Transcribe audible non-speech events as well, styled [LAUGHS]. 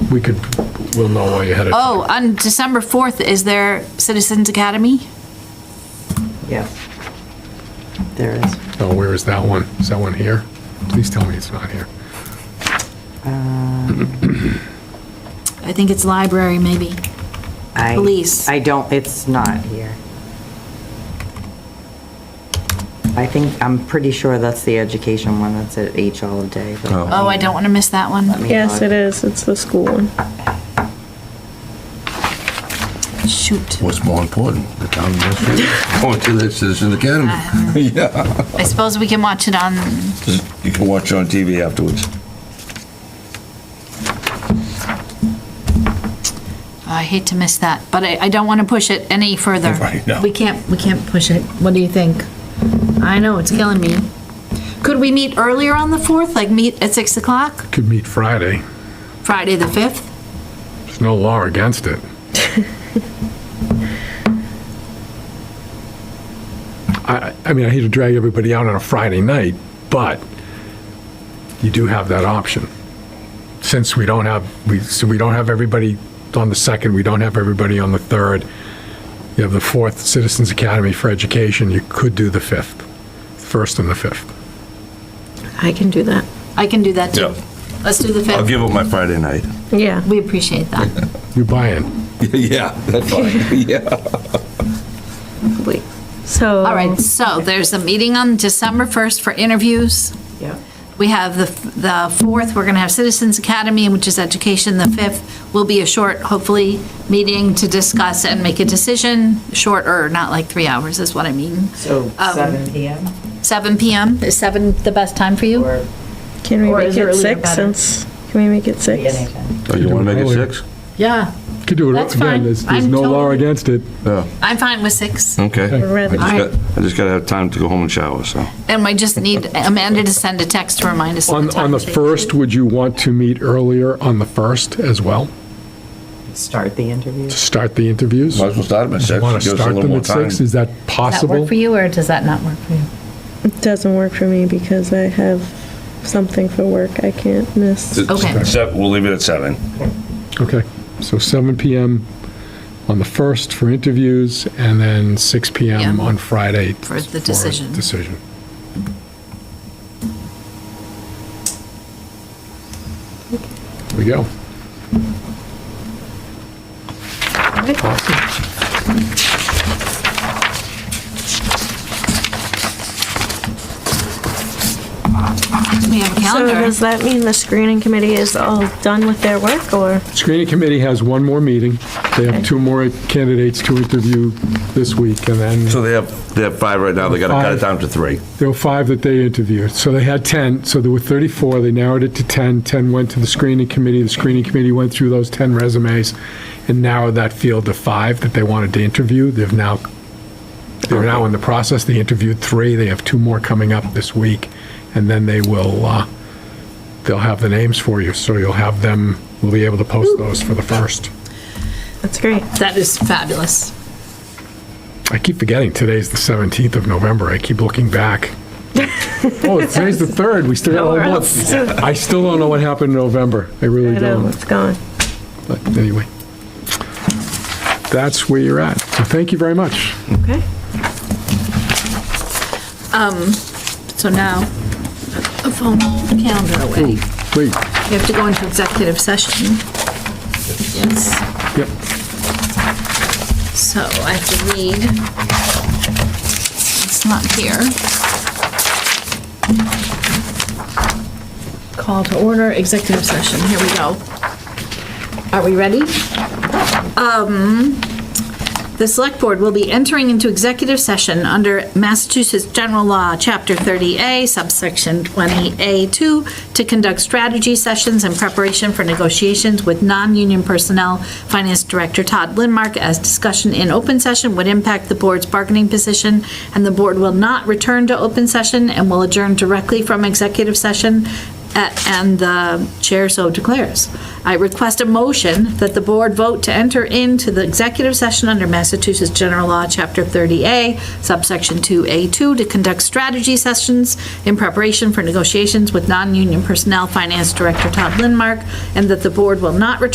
we could, we'll know way ahead of time. Oh, on December 4th, is there Citizens Academy? Yes. There is. Oh, where is that one? Is that one here? Please tell me it's not here. uh, I think it's library, maybe. I- Police. I don't, it's not here. I think, I'm pretty sure that's the education one that's at H all day. but- Oh. Oh, I don't want to miss that one. Yes, it is. It's the school one. Shoot. What's more important, the town administrator [LAUGHS] going to the Citizen Academy? [LAUGHS] Yeah, I suppose we can watch it on, oh, you can watch it on TV afterwards. I hate to miss that, but I, I don't want to push it any further. [LAUGHS] Right, no. We can't, we can't push it. What do you think? I know, it's killing me. Could we meet earlier on the 4th, like meet at 6 o'clock, Could meet Friday. Friday the 5th? There's no law against it. I, I I mean, I hate to drag everybody out on a Friday night, but you do have that option. Since we don't have, we, so we don't have everybody on the second, we don't have everybody on the third. You have the fourth Citizens Academy for Education, you could do the fifth, first and the fifth. I can do that. I can do that too. Yeah. Let's do the I'll 5th. give up my Friday night. Yeah. We appreciate that. You buy in. [LAUGHS] Yeah, that's [LAUGHS] fine, yeah. Wait. So. All right, so there's a meeting on December 1st for interviews. Yep. We have the, the 4th, we're going to have Citizens Academy, which is education. The 5th will be a short, hopefully, meeting to discuss and make a decision, shorter, not like three hours is what I mean. So Um, 7 PM? 7 PM, is 7 the best time for you? Or Can we Or make is earlier it six better? since, can we make it six? anything? Oh, you want to make it six? Yeah. Could do it, That's again, fine. there's, there's I'm no law totally- against it. Yeah, I'm fine with 6. okay. I Rather- just got- I just gotta have time to go home and shower, so. And we just need Amanda to send a text to remind us. of On, on the times. first, would you want to meet earlier on the first as well, Start the interview? to start the interviews? Might as well start them at Do you six. want to Give us a start little them more at time. six? Is that Does that possible? work for you, or does that not work for you? It doesn't work for me because I have something for work I can't miss. Okay. Seven- We'll leave it at seven. Okay, so 7 PM on the first for interviews, and then 6 PM Yeah. on Friday. For the decision. Decision. There we go. Awesome. We have a So calendar. does that mean the screening committee is all done with their work or? Screening committee has one more meeting. They have Okay. two more candidates to interview this week, and then... So they have, they have five right now, they gotta cut it Five. down to three. There were five that they interviewed. So they had 10, so there were 34, they narrowed it to 10. 10 went to the screening committee, the screening committee went through those 10 resumes and narrowed that field to five that they wanted to interview. They've now, they're now in the process, they interviewed three, they have two more coming up this week, and then they will, uh, they'll have the names for you, so you'll have them, we'll be able to post those for the first. That's great. That is fabulous. I keep forgetting today's the 17th of November. I keep looking [LAUGHS] back. oh, today's the 3rd. We still got a Nowhere whole else. month. I still don't know what happened in November. I I really know, don't. it's gone. But anyway, that's where you're at. So thank you very much. Okay. So now, a phone calendar away. Wait, You have to go into executive session. Yes, yep. so I have to read. It's not here. Call to order, executive session, here we go. Are we ready? Um, The Select Board will be entering into executive session under Massachusetts General Law, Chapter 30A, subsection 20A2, to conduct strategy sessions in preparation for negotiations with non-union personnel. Finance Director Todd Lindmark, as discussion in open session would impact the board's bargaining position, and the board will not return to open session and will adjourn directly from executive session at- and the chair so declares. I request a motion that the board vote to enter into the executive session under Massachusetts General Law, Chapter 30A, subsection 2A2, to conduct strategy sessions in preparation for negotiations with non-union personnel, Finance Director Todd Lindmark, and that the board will not return